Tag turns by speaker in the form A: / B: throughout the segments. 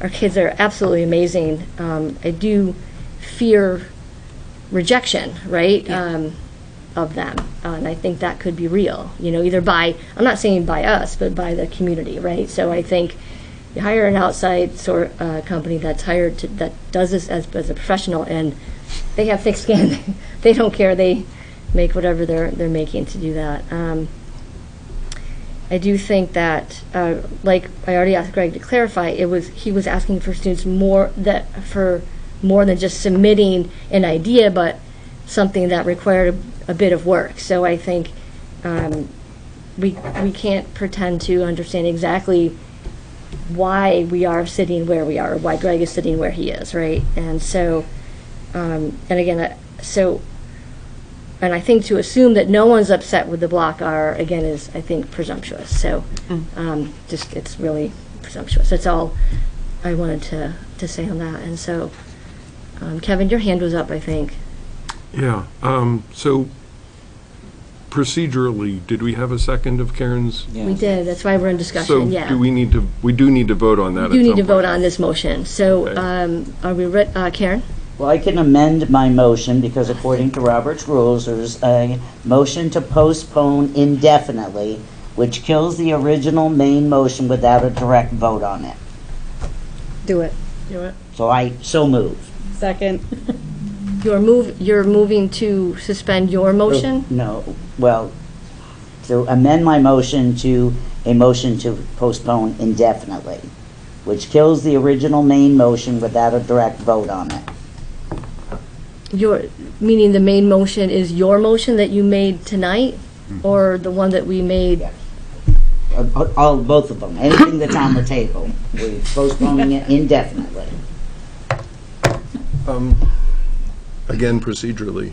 A: Our kids are absolutely amazing. Um, I do fear rejection, right?
B: Yeah.
A: Um, of them, Uh, and I think that could be real. You know, either by I'm not saying by us, but by the community, right? So I think you hire an outside sort uh, company that's hired to, that does this as, as a professional, and they have thick skin. they don't care. They make whatever they're they're making to do that. Um, I do think that, uh, like I already asked Greg to clarify, it was he was asking for students more that for more than just submitting an idea, but something that required a, a bit of work. So I think um, we we can't pretend to understand exactly why we are sitting where we are, or why Greg is sitting where he is, right? And so, um, and again, uh, so and I think to assume that no one's upset with the block R, again, is, I think, presumptuous. So, um, just, it's really presumptuous. That's all I wanted to, to say on that. And so, um, Kevin, your hand was up, I think.
C: Yeah, um, so procedurally, did we have a second of Karen's?
A: We did, that's why we're in discussion, yeah.
C: So do we need to, we do need to vote on that at
A: You need
C: some
A: to vote
C: point.
A: on this motion. So,
C: Okay.
A: um, are we, re- uh, Karen?
B: Well, I can amend my motion because according to Robert's rules, there's a motion to postpone indefinitely, which kills the original main motion without a direct vote on it.
D: Do it.
A: Do it.
B: So I, so move.
D: Second.
A: You're move, you're moving to suspend your motion?
B: No, well, to amend my motion to a motion to postpone indefinitely, which kills the original main motion without a direct vote on it.
A: Your, meaning the main motion is your motion that you made tonight? Or the one that we made
B: Uh, All, both of them, anything that's on the table, we're postponing it indefinitely.
C: Um, Again, procedurally.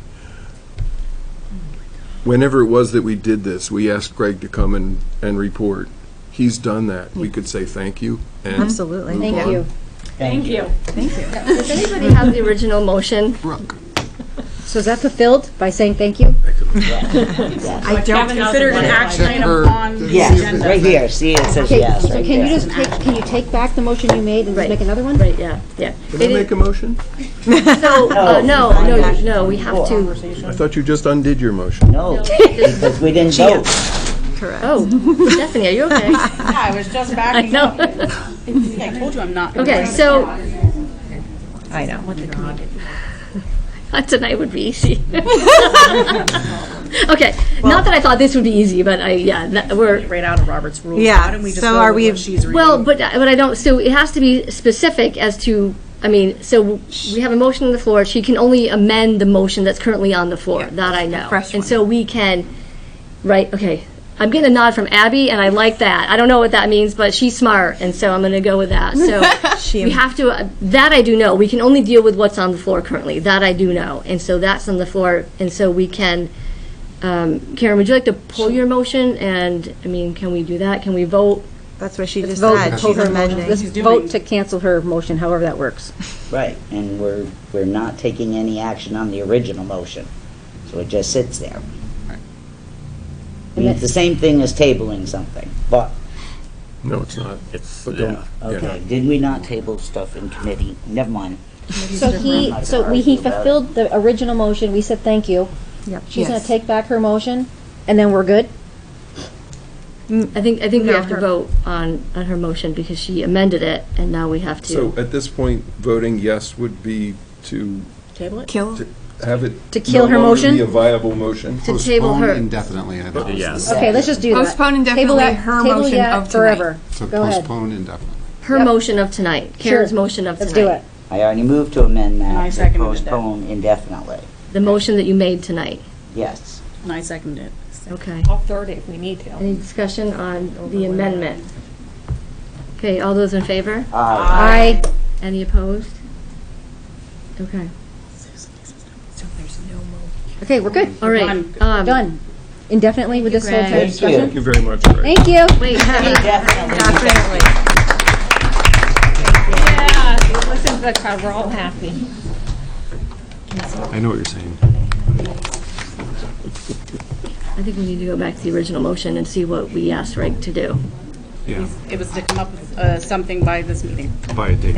C: Whenever it was that we did this, we asked Greg to come and, and report. He's done that. We could say thank you and.
D: Absolutely.
C: move
A: Thank
C: on.
A: you.
B: Thank you.
A: Does anybody have the original motion?
C: Brooke.
D: So is that fulfilled by saying thank you? I don't
E: consider it an action
C: Check her.
E: item on the
B: Yes,
E: agenda.
B: right here, see, it says
D: Okay,
B: yes,
D: so
B: right
D: can you
B: there.
D: just take, can you take back the motion you made and
A: Right.
D: just make another one?
A: Right, yeah, yeah.
C: Can I make a motion?
A: No, uh, no, no, you- no, we have to,
C: I thought you just undid your motion.
B: No, because we didn't vote.
A: oh, Stephanie, are you okay?
E: Yeah, I was just backing
A: No.
E: up. I told you I'm not. gonna
A: Okay,
E: do it.
A: so,
D: I know.
A: tonight would be easy. Okay, not that I thought this would be easy, but I, yeah, that, we're,
E: Right out of Robert's rules.
F: Yeah,
E: Why don't we just
F: so
E: go
F: are
E: with
F: we-
E: what she's reading?
A: well, but, but I don't, so it has to be specific as to, I mean, so we have a motion on the floor, she can only amend the motion that's currently on the floor, that I know.
F: fresh
A: And
F: one.
A: so we can, right, okay, I'm getting a nod from Abby, and I like that, I don't know what that means, but she's smart, and so I'm gonna go with that, so. We have to, that I do know, we can only deal with what's on the floor currently, that I do know, and so that's on the floor, and so we can, um, Karen, would you like to pull your motion, and, I mean, can we do that, can we vote?
F: That's what she just
D: Vote, vote
F: said. She's
D: her motion.
F: amending.
D: Let's vote to cancel her motion, however that works.
B: Right, and we're, we're not taking any action on the original motion, so it just sits there. I mean, it's the same thing as tabling something, but,
C: No, it's not.
B: it's,
C: But don't-
B: okay, did we not table stuff in committee? Never mind.
D: So he,
B: I'm not
D: so
B: gonna
D: we, he
B: argue about it.
D: fulfilled the original motion, we said thank you. Yep. She's gonna
F: Yes.
D: take back her motion, and then we're good?
A: I think, I think we have to vote on, on her motion, because she amended it, and now we have
C: So
A: to.
C: at this point, voting yes would be to
A: Table it?
F: Kill.
C: have it.
D: To kill
C: no
D: her
C: longer
D: motion?
C: Be a viable motion.
A: To table her.
G: Postpone indefinitely, I think.
H: Yes.
D: Okay, let's just do that.
F: Postpone
D: Table
F: indefinitely
D: that-
F: her
D: table
F: motion
D: yeah
F: of tonight.
D: Forever.
G: So
D: Go ahead.
G: postpone indefinitely.
A: Her motion of tonight, Karen's
D: Sure.
A: motion of tonight.
D: Let's do it.
B: I already moved to amend
E: I
B: that, to
E: seconded that.
B: postpone indefinitely,
A: The motion that you made tonight,
B: yes.
E: And I second it.
A: okay.
I: I'll third it if we need to.
A: Any discussion on the amendment? Okay, all those in favor?
B: Aye.
D: Aye.
A: Any opposed? Okay,
D: Okay, we're good.
A: all right.
E: Done.
A: um,
D: Done. Indefinitely with this whole
A: Greg.
D: entire discussion?
C: Thank you very much, Greg.
D: Thank you.
A: Wait,
F: Definitely.
I: Yeah, you listen to the crowd, we're all happy.
C: I know what you're saying.
A: I think we need to go back to the original motion and see what we asked Reg to do.
C: Yeah,
E: It was to come up with uh, something by this meeting.
C: by a date.